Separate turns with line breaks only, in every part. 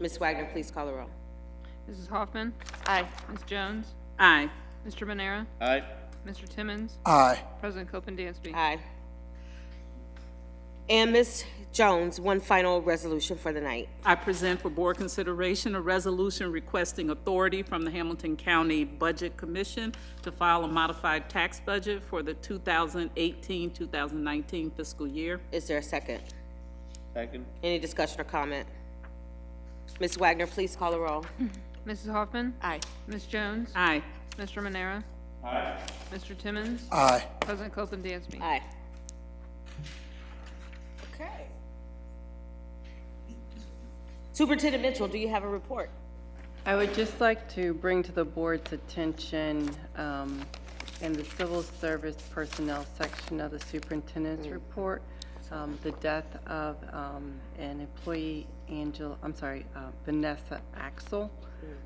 Ms. Wagner, please call the roll.
Mrs. Hoffman?
Aye.
Ms. Jones?
Aye.
Mr. Manera?
Aye.
Mr. Timmons?
Aye.
President Copeland Dansby?
Aye. And Ms. Jones, one final resolution for the night.
I present for board consideration a resolution requesting authority from the Hamilton County Budget Commission to file a modified tax budget for the 2018-2019 fiscal year.
Is there a second?
Second.
Any discussion or comment? Ms. Wagner, please call the roll.
Mrs. Hoffman?
Aye.
Ms. Jones?
Aye.
Mr. Manera?
Aye.
Mr. Timmons?
Aye.
President Copeland Dansby?
Aye.
Okay.
Superintendent Mitchell, do you have a report?
I would just like to bring to the board's attention, um, in the civil service personnel section of the superintendent's report, um, the death of, um, an employee, Angel, I'm sorry, uh, Vanessa Axel.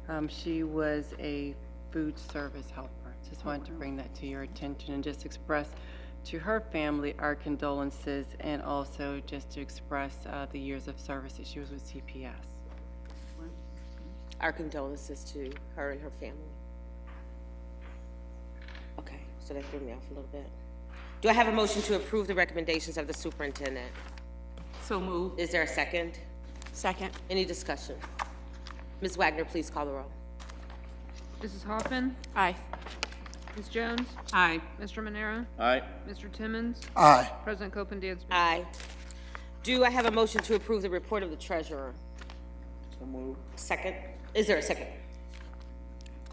Um, she was a food service helper. Just wanted to bring that to your attention and just express to her family our condolences and also just to express, uh, the years of service that she was with CPS.
Our condolences to her and her family. Okay, so that threw me off a little bit. Do I have a motion to approve the recommendations of the superintendent?
So moved.
Is there a second? Second. Any discussion? Ms. Wagner, please call the roll.
Mrs. Hoffman?
Aye.
Ms. Jones?
Aye.
Mr. Manera?
Aye.
Mr. Timmons?
Aye.
President Copeland Dansby?
Aye. Do I have a motion to approve the report of the treasurer?
So moved.
Second? Is there a second?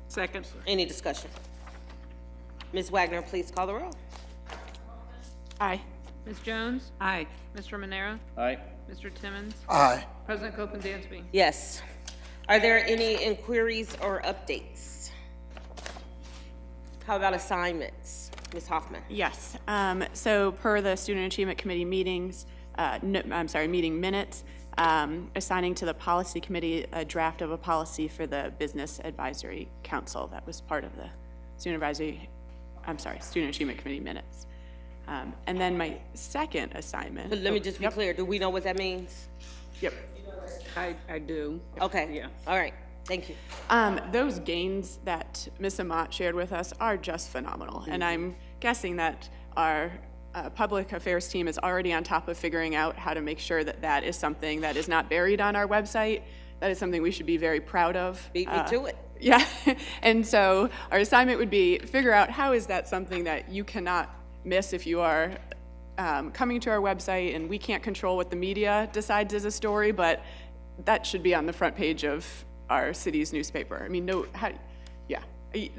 Second.
Any discussion? Ms. Wagner, please call the roll. Aye.
Ms. Jones?
Aye.
Mr. Manera?
Aye.
Mr. Timmons?
Aye.
President Copeland Dansby?
Yes. Are there any inquiries or updates? How about assignments? Ms. Hoffman?
Yes, um, so per the Student Achievement Committee meetings, uh, no, I'm sorry, meeting minutes, um, assigning to the policy committee a draft of a policy for the Business Advisory Council that was part of the Student Advisory, I'm sorry, Student Achievement Committee minutes. Um, and then my second assignment.
Let me just be clear, do we know what that means?
Yep.
I, I do.
Okay.
Yeah.
All right, thank you.
Um, those gains that Ms. Amat shared with us are just phenomenal, and
Mm-hmm.
I'm guessing that our uh, public affairs team is already on top of figuring out how to make sure that that is something that is not buried on our website. That is something we should be very proud of.
Beat me
Uh,
to it.
yeah, and so our assignment would be figure out how is that something that you cannot miss if you are um, coming to our website, and we can't control what the media decides is a story, but that should be on the front page of our city's newspaper. I mean, no, how, yeah, Y-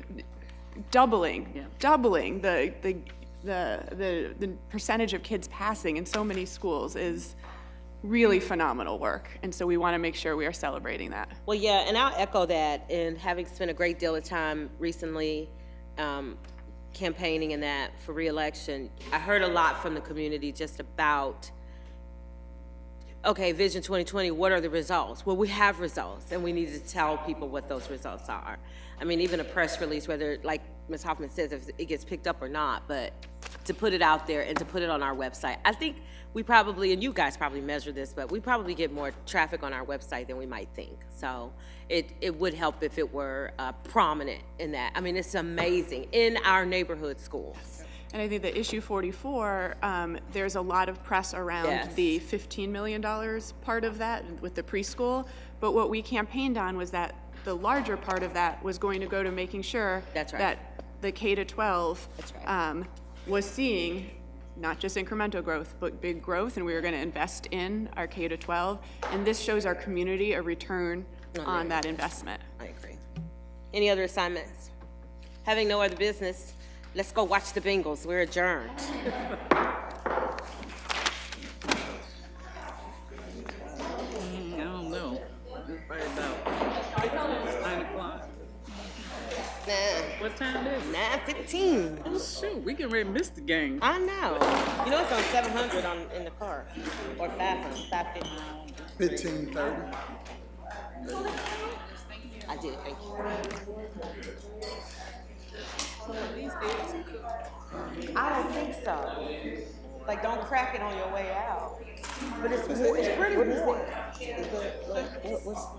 doubling, doubling the the the the, the percentage of kids passing in so many schools is really phenomenal work, and so we want to make sure we are celebrating that.
Well, yeah, and I'll echo that. And having spent a great deal of time recently um, campaigning and that for reelection, I heard a lot from the community just about, okay, Vision 2020, what are the results? Well, we have results, and we need to tell people what those results are. I mean, even a press release, whether, like Ms. Hoffman says, if it gets picked up or not, but to put it out there and to put it on our website. I think we probably, and you guys probably measure this, but we probably get more traffic on our website than we might think. So it, it would help if it were uh, prominent in that. I mean, it's amazing, in our neighborhood schools.
And I think that issue 44, um, there's a lot of press
Yes.
around the $15 million part of that with the preschool. But what we campaigned on was that the larger part of that was going to go to making sure
That's right.
that the K to 12
That's right.
um, was seeing not just incremental growth, but big growth, and we were going to invest in our K to 12. And this shows our community a return on that investment.
I agree. Any other assignments? Having no other business, let's go watch the Bengals. We're adjourned.
Mm, I don't know. It's probably about nine o'clock. What time is it?
Nine fifteen.
Oh, shoot, we can ready to miss the game.
I know. You know it's on seven hundred on in the car, or five hundred, five fifty.
Fifteen thirty.
I did. Thank you. I don't think so. Like, don't crack it on your way out. But it's, it's pretty warm.